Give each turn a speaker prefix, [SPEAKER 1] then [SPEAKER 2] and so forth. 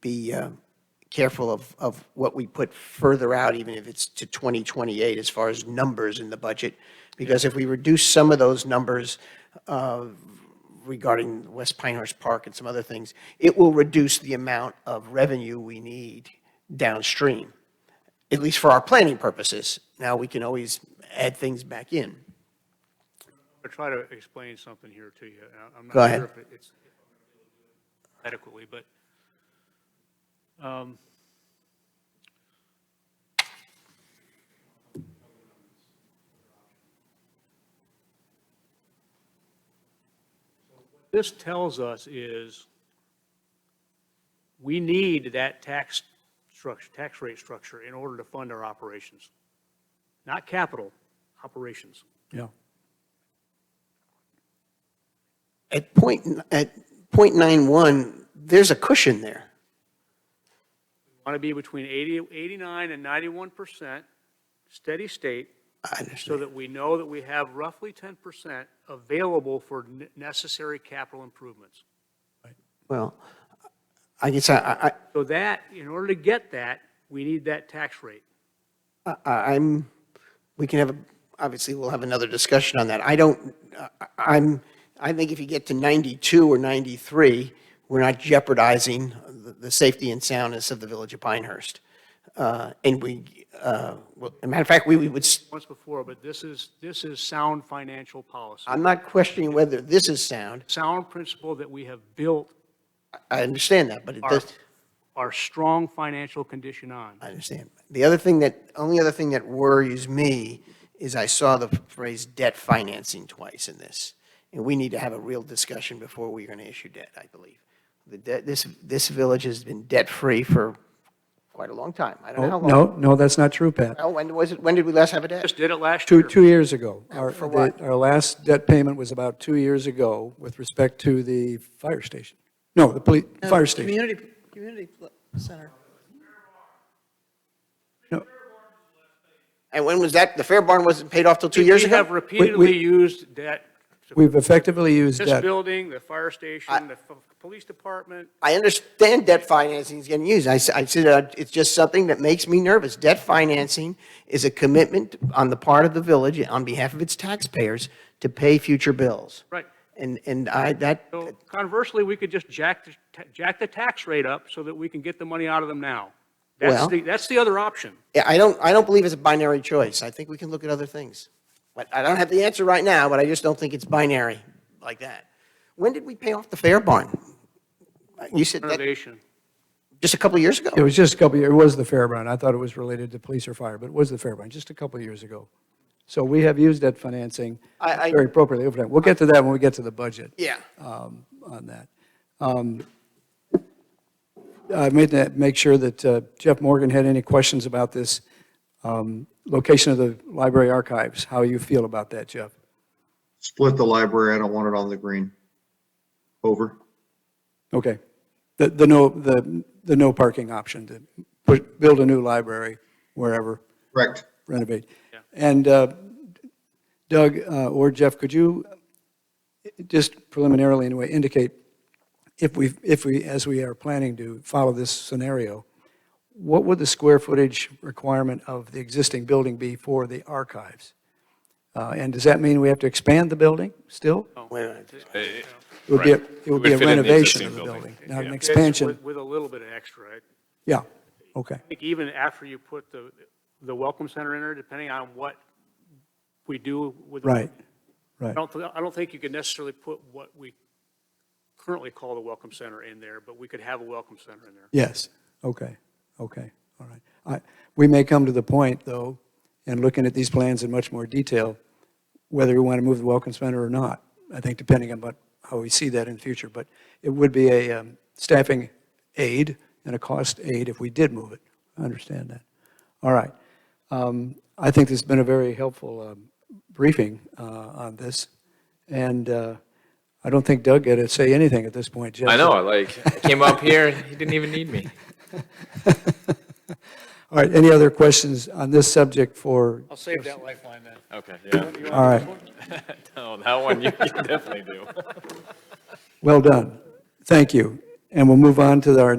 [SPEAKER 1] be uh, careful of, of what we put further out, even if it's to 2028, as far as numbers in the budget. Because if we reduce some of those numbers uh, regarding West Pinehurst Park and some other things, it will reduce the amount of revenue we need downstream, at least for our planning purposes. Now, we can always add things back in.
[SPEAKER 2] I'll try to explain something here to you. and I- I'm
[SPEAKER 1] Go
[SPEAKER 2] not
[SPEAKER 1] ahead.
[SPEAKER 2] sure if it- it's adequately, but um, this tells us is we need that tax structure, tax rate structure in order to fund our operations. Not capital, operations.
[SPEAKER 3] Yeah.
[SPEAKER 1] At point, at point nine one, there's a cushion there.
[SPEAKER 2] want to be between 80, 89 and 91% steady state,
[SPEAKER 1] I
[SPEAKER 2] so
[SPEAKER 1] understand.
[SPEAKER 2] that we know that we have roughly 10% available for n- necessary capital improvements.
[SPEAKER 1] Well, I guess I, I,
[SPEAKER 2] So that, in order to get that, we need that tax rate.
[SPEAKER 1] I- I'm, we can have, a obviously, we'll have another discussion on that. I don't, I- I'm, I think if you get to 92 or 93, we're not jeopardizing the, the safety and soundness of the village of Pinehurst. Uh, And we, uh, well, as a matter of fact, we we would, s-
[SPEAKER 2] Once before, but this is, this is sound financial policy,
[SPEAKER 1] I'm not questioning whether this is sound.
[SPEAKER 2] sound principle that we have built
[SPEAKER 1] I understand that, but it
[SPEAKER 2] our,
[SPEAKER 1] does,
[SPEAKER 2] our strong financial condition on.
[SPEAKER 1] I understand. The other thing that, only other thing that worries me is I saw the phrase debt financing twice in this. And we need to have a real discussion before we're going to issue debt, I believe. The debt, this, this village has been debt-free for quite a long time. I don't know how long.
[SPEAKER 3] Oh, No, no, that's not true, Pat.
[SPEAKER 1] Oh, When was it, when did we last have a debt?
[SPEAKER 2] Just did it last
[SPEAKER 3] Two,
[SPEAKER 2] year.
[SPEAKER 3] two years ago. Our-
[SPEAKER 1] For what?
[SPEAKER 3] the- Our last debt payment was about two years ago with respect to the fire station. No, the police, fire station.
[SPEAKER 4] Community, community pl- center.
[SPEAKER 3] No,
[SPEAKER 1] And when was that, the Fair Barn wasn't paid off till two years
[SPEAKER 2] We have
[SPEAKER 1] ago?
[SPEAKER 2] repeatedly used debt, to
[SPEAKER 3] We've effectively used
[SPEAKER 2] this
[SPEAKER 3] debt.
[SPEAKER 2] building, the fire station, the f- police department,
[SPEAKER 1] I understand debt financing is getting used. I, s- I said, uh, it's just something that makes me nervous. Debt financing is a commitment on the part of the village, on behalf of its taxpayers, to pay future bills.
[SPEAKER 2] Right.
[SPEAKER 1] And, and I, that,
[SPEAKER 2] So conversely, we could just jack, the ta- jack the tax rate up so that we can get the money out of them now. That's
[SPEAKER 1] Well-
[SPEAKER 2] the, that's the other option.
[SPEAKER 1] I don't, I don't believe it's a binary choice. I think we can look at other things. But I don't have the answer right now, but I just don't think it's binary like that. When did we pay off the Fair Barn? You said that,
[SPEAKER 2] Renovation.
[SPEAKER 1] just a couple of years ago?
[SPEAKER 3] It was just a couple, of year- it was the Fairburn. I thought it was related to police or fire, but it was the Fairburn, just a couple of years ago. So we have used debt financing
[SPEAKER 1] I- I-
[SPEAKER 3] very appropriately over time. We'll get to that when we get to the budget.
[SPEAKER 1] Yeah.
[SPEAKER 3] Oh. on that. Um, I made that, make sure that uh, Jeff Morgan had any questions about this um, location of the library archives, how you feel about that, Jeff?
[SPEAKER 5] Split the library, I don't want it on the green. Over.
[SPEAKER 3] Okay. The, the no, the, the no parking option to push, build a new library wherever,
[SPEAKER 5] Correct.
[SPEAKER 3] renovate. And uh, Doug uh, or Jeff, could you uh, just preliminarily anyway indicate if we, if we, as we are planning to follow this scenario, what would the square footage requirement of the existing building be for the archives? Uh, And does that mean we have to expand the building still?
[SPEAKER 1] Wait a minute.
[SPEAKER 3] It would be, a-
[SPEAKER 6] Oh, Right.
[SPEAKER 3] it would
[SPEAKER 6] It would
[SPEAKER 3] be a
[SPEAKER 6] fit in the
[SPEAKER 3] renovation of
[SPEAKER 6] existing
[SPEAKER 3] the
[SPEAKER 6] building.
[SPEAKER 3] building, not an
[SPEAKER 6] Yeah.
[SPEAKER 3] expansion.
[SPEAKER 2] With- With a little bit of extra. I
[SPEAKER 3] Yeah, okay.
[SPEAKER 2] think even after you put the, the welcome center in there, depending on what we do with.
[SPEAKER 3] Right,
[SPEAKER 2] I
[SPEAKER 3] right.
[SPEAKER 2] don't, thi- I don't think you could necessarily put what we currently call the welcome center in there, but we could have a welcome center in there.
[SPEAKER 3] Yes, okay, okay, all right. I- We may come to the point, though, in looking at these plans in much more detail, whether we want to move the Welcome Center or not, I think depending on what, how we see that in the future, but it would be a um, staffing aid and a cost aid if we did move it. I understand that. All right. Um, I think this has been a very helpful um, briefing uh, on this, and uh, I don't think Doug got to say anything at this point, Jeff.
[SPEAKER 6] I know. Like, I came up here, he didn't even need me.
[SPEAKER 3] All right, any other questions on this subject for,
[SPEAKER 2] I'll save that lifeline then.
[SPEAKER 6] Okay, yeah.
[SPEAKER 3] all right,
[SPEAKER 6] No, that one you, you definitely do.
[SPEAKER 3] well done. Thank you. And we'll move on to our